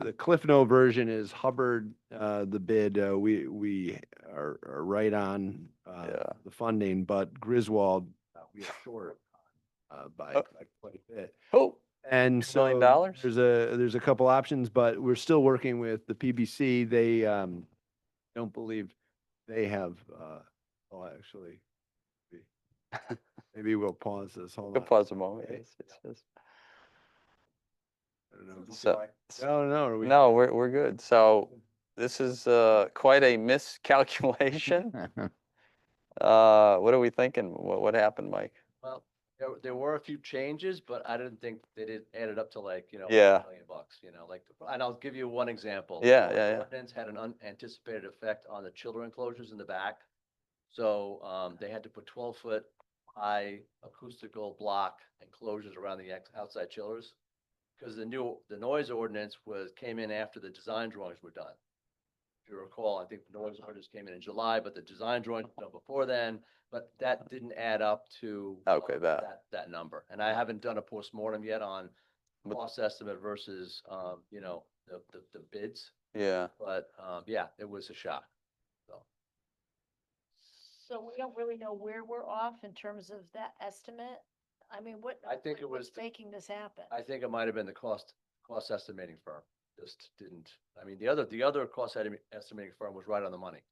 the Cliff Note version is Hubbard, uh, the bid, uh, we, we are, are right on, uh, Yeah. the funding, but Griswold, uh, we are short, uh, by Oh. by quite a bit. Oh, And $2 million so dollars? there's a, there's a couple options, but we're still working with the PBC. They, um, don't believe they have, uh, oh, actually, maybe- maybe we'll pause this, hold good on. pause a moment. Okay. Yes, yes, yes. I don't know. So, I don't know, are we? uh, no, we're, we're good. So this is, uh, quite a miscalculation. Uh, what are we thinking? What, what happened, Mike? Well, there, there were a few changes, but I didn't think they did, added up to like, you know, a Yeah. million bucks, you know, like, and I'll give you one example. Yeah, So yeah, the yeah. Ordinance had an unanticipated effect on the children enclosures in the back. So, um, they had to put twelve foot high acoustical block enclosures around the ex- outside chillers. Cause the new, the noise ordinance was, came in after the design drawings were done. If you recall, I think the noise Uh-huh. ordinance came in in July, but the design drawings were done before then, but that didn't add up to. uh, Uh-huh. Okay, that- That number. And I haven't done a postmortem yet on But- cost estimate versus, um, you know, the, the, the bids, Yeah. but, um, yeah, it was a shock. So we don't really know where we're off in terms of that estimate? I mean, what? I think it what- what's was the- Making this happen? I think it might have been the cost, cost estimating firm. Just didn't, I mean, the other, the other cost esti- estimating firm was right on the money.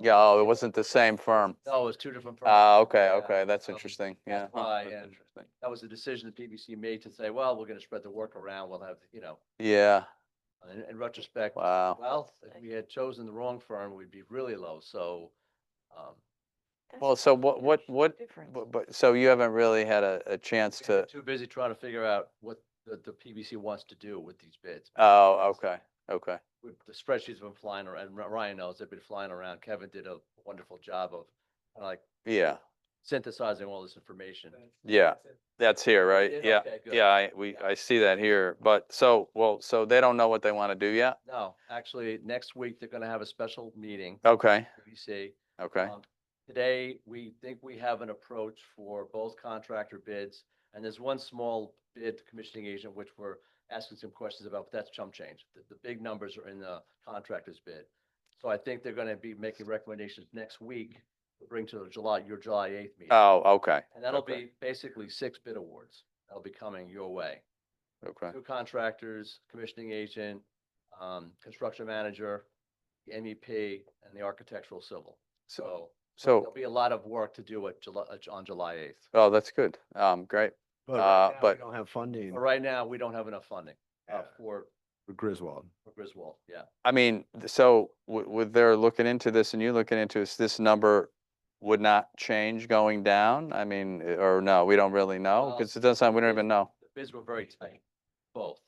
Yeah, oh, it wasn't the same firm. No, it was two different firms. Ah, okay, Yeah. okay, that's so interesting, yeah. that's huh, why, that's and- interesting. That was the decision the PBC made to say, well, we're gonna spread the work around. We'll have, you know, Yeah, in, in retrospect, wow. well, if we had chosen the wrong firm, we'd be really low. So, um, That's Well, so quite a what, what, huge what, difference. but, but, so you haven't really had a, a chance We're to, Too busy trying to figure out what the, the PBC wants to do with these bids. oh, because okay, okay. with- The spreadsheets have been flying around, and Ry- Ryan knows, they've been flying around. Kevin did a wonderful job of kinda like Yeah, synthesizing all this information. yeah, that's here, right? Did? Yeah, Okay, good. yeah, I, we, Yeah. I see that here, but, so, well, so they don't know what they want to do yet? No, actually, next week, they're gonna have a special meeting, Okay, PBC. okay, Um, Today, we think we have an approach for both contractor bids, and there's one small bid to commissioning agent, which we're asking some questions about, but that's chump change. The, the big numbers are in the contractor's bid. So I think they're gonna be making recommendations next week to bring to the July, your July eighth meeting. oh, okay, And that'll okay. be basically six bid awards. That'll be coming your way. okay, Two contractors, commissioning agent, um, construction manager, MEP, and the architectural civil. so, So There'll so, be a lot of work to do at July, on July eighth. oh, that's good, um, great, But right uh, now we but- Don't have funding But right now, we don't have enough funding uh, Yeah. for for Griswold. for Griswold, yeah. I mean, th- so with, with their looking into this and you looking into this, this number would not change going down? I mean, eh, or no, we don't really know? Well, Because it doesn't sound, we don't it's- even know. The bids were very tight, both.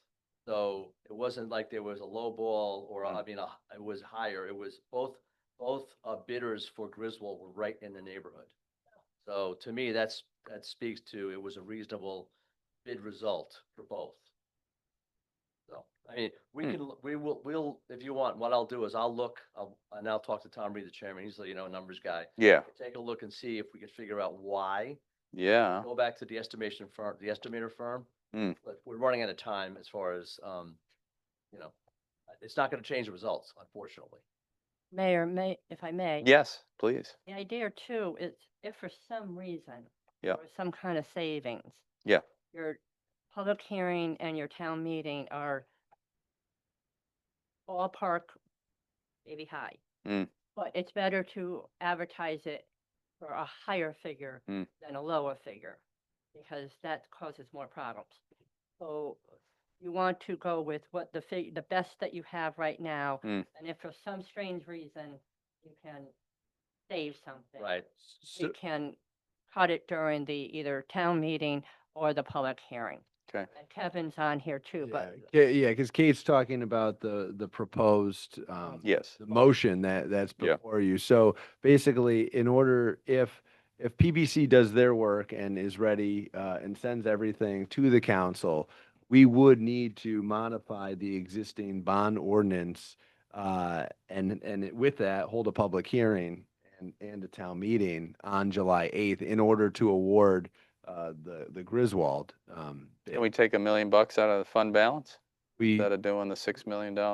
So it wasn't like there was a low ball or, I mean, a- it was higher. It was both, both uh, bidders for Griswold were right in the neighborhood. So to me, that's, that speaks to it was a reasonable bid result for both. So, I mean, we Hmm. can, l- we will, we'll, if you want, what I'll do is I'll look, I'll- and I'll talk to Tom Reed, the chairman. He's, you know, a numbers guy. Yeah, Take a look and see if we can figure out why yeah, go back to the estimation firm, the estimator firm. Mm. But we're running out of time as far as, um, you know, uh, it's not gonna change the results, unfortunately. Mayor, may, if I may. yes, please, The idea too is if for some reason. Yeah. or Some kind of savings. Yeah. Your public hearing and your town meeting are ballpark, maybe high. Mm. But it's better to advertise it for a higher figure Mm. than a lower figure, because that causes more problems. So you want to go with what the fig, the best that you have right now. Mm. And if for some strange reason you can save something. Right. You can cut it during the either town meeting or the public hearing. okay. And Kevin's on here too, but Yeah, yeah, because Kate's talking about the, the proposed, um, Yes, the motion that, that's Yeah. before you. So basically, in order, if, if PBC does their work and is ready, uh, and sends everything to the council, we would need to modify the existing bond ordinance, uh, and, and it- with that, hold a public hearing and, and a town meeting on July eighth in order to award, uh, the, the Griswold, um. can we take a million bucks out of the fund balance We. instead of doing the six million dollar?